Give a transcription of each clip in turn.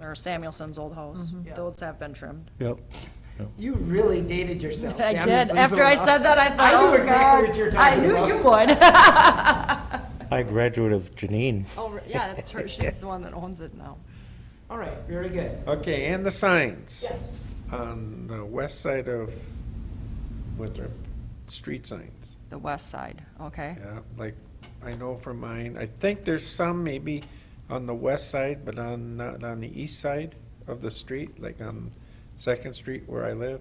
or Samuelson's old house. Yeah. Those have been trimmed. Yep. You really dated yourself. I Sam. did. This is After I so- said that, I thought, I knew oh, exactly God. what you were I talking knew about. you would. I graduate of Janine. Oh, yeah, that's her. She's the one that owns it now. All right, very good. Okay, and the signs? Yes. On the west side of Winthrop, street signs, The west side, okay? yeah, like, I know for mine, I think there's some maybe on the west side, but on, not on the east side of the street, like on Second Street where I live.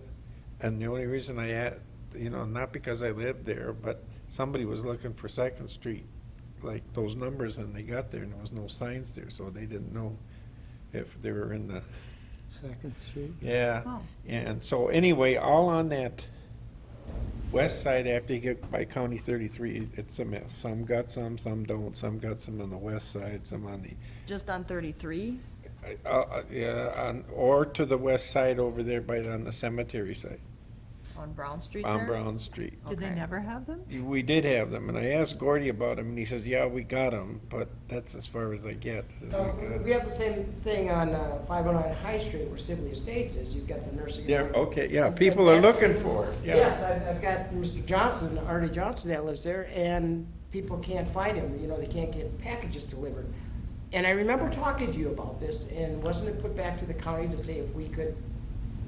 And the only reason I had, you know, not because I lived there, but somebody was looking for Second Street, like those numbers, and they got there and there was no signs there, so they didn't know if they were in the Second Street. yeah, Oh. and so anyway, all on that west side after you get by County thirty-three, it's a mess. Some got some, some don't, some got some on the west side, some on the, Just on 33? uh, uh, yeah, on, or to the west side over there by, on the cemetery side, On Brown Street there? on Brown Street. Did they Okay. never have them? We did have them, and I asked Gordy about them, and he says, yeah, we got them, but that's as far as I get. Uh, We have the same thing on uh, 509 High Street where Sibley Estates is. You've got the nursing. Yeah, home. okay, yeah, people are looking for it, Yes, yeah. I've, I've got Mr. Johnson, Artie Johnson that lives there, and people can't find him, you know, they can't get packages delivered. And I remember talking to you about this, and wasn't it put back to the county to say if we could?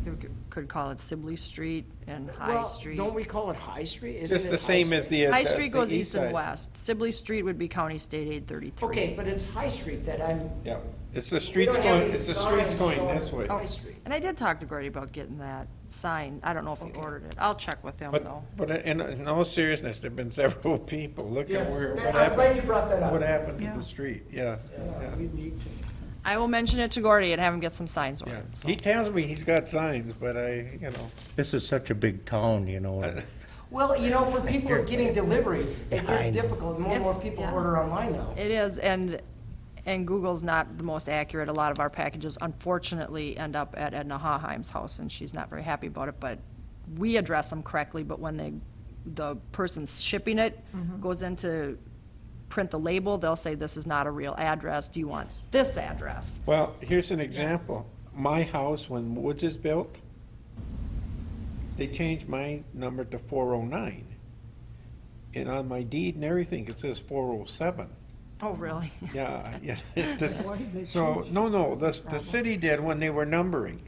You c- Could call it Sibley Street and High Well, Street. Don't we call it High Street? Isn't Just it the High same as Street? the. uh, High the- Street the goes east east and side. west. Sibley Street would be County State Aid 33. Okay, but it's High Street that I'm. Yeah, it's the we streets don't have going, any it's the streets signs going showing this way. Oh. High Street. And I did talk to Gordy about getting that sign. I don't know if he ordered it. I'll check with him, though. But, but in, in all seriousness, there've been several people, look at Yes, where, what I'm glad happened, you brought that what up. happened to Yeah. the street, yeah. yeah, I will mention it to Gordy and have him get some signs yeah. ordered. so. He tells me he's got signs, but I, you know, This is such a big town, you know. and- Well, you know, for people who are getting deliveries, it I is know. difficult, more and more It's- people yeah. order online now. It is, and, and Google's not the most accurate. A lot of our packages unfortunately end up at Edna Haheim's house, and she's not very happy about it, but we address them correctly, but when they, the person shipping it goes in to print the label, they'll say, this is not a real address. Do you want this address? well, here's an example. My house, when Woods is built, they changed my number to four oh nine. And on my deed and everything, it says four oh seven. Oh, really? Yeah, yeah. This- So, no, no, the, the city did when they were numbering.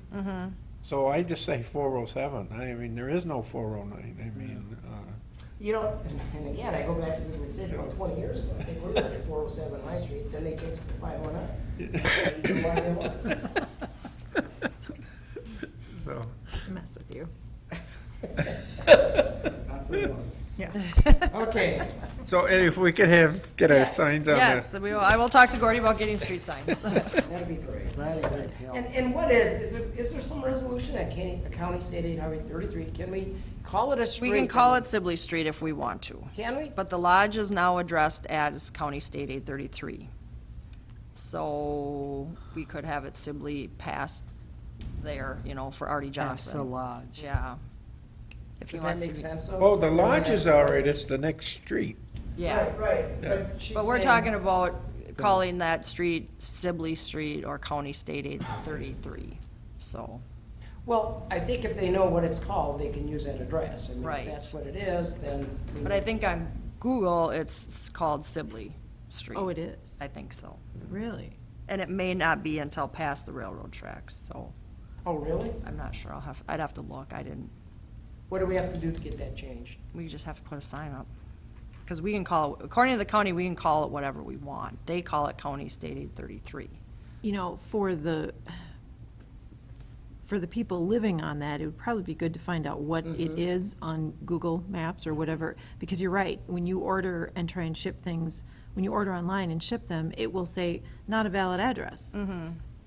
So I just say four oh seven. I mean, there is no four oh nine. I mean, uh, You know, and again, I go back to the city about twenty years ago, I think we were at four oh seven High Street, then they changed it to five oh nine. so. Just to mess with you. Yeah. oh Okay, So if we could have, get our Yes, signs on Yes, the, we will, I will talk to Gordy about getting street signs. that'd be great. And, and what is, is there, is there some resolution at County, County State Aid Highway thirty-three, can we call it a We street? can call it Sibley Street if we want to. Can we? But the lodge is now addressed as County State Aid thirty-three. So we could have it Sibley past there, you know, for Artie Johnson. That's the lodge. Yeah. If he Does that wants to make be. sense? though? oh, the lodge is all right. It's the next street. Yeah, Right, right, but she's but we're saying- talking about calling that street Sibley Street or County State Aid thirty-three, so. Well, I think if they know what it's called, they can use that address, I mean, if Right. that's what it is, then. we- But I think on Google, it's called Sibley Street. Oh, it is? I think so. Really? And it may not be until past the railroad tracks, so Oh, really? I'm not sure. I'll have, I'd have to look. I didn't, What do we have to do to get that changed? we just have to put a sign up. Because we can call, it according to the county, we can call it whatever we want. They call it County State Aid thirty-three. You know, for the, for the people living on that, it would probably be good to find out what it is on Google Maps or whatever, because you're right, when you order and try and ship things, when you order online and ship them, it will say, not a valid address.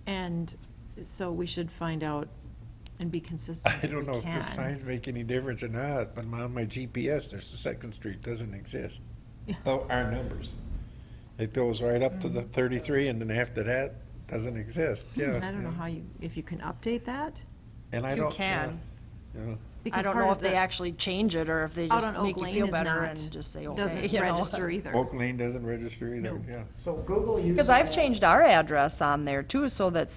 And so we should find out and be consistent I don't we know if the can. signs make any difference or not, but on my GPS, there's the second street doesn't exist. Yeah. Mm. Oh, our numbers. It goes right up to the thirty-three and then after that, doesn't exist, yeah. Hmm, I don't know how you, if you can update that, And I You don't. can. yeah, yeah. because I don't part know of if they the- actually change it or if they out just on make Oak you Lane feel is not. better and just say, okay, Doesn't you know. register either. Oak Lane doesn't register either, Nope. yeah. So Google uses. Because I've that. changed our address on there too, so that's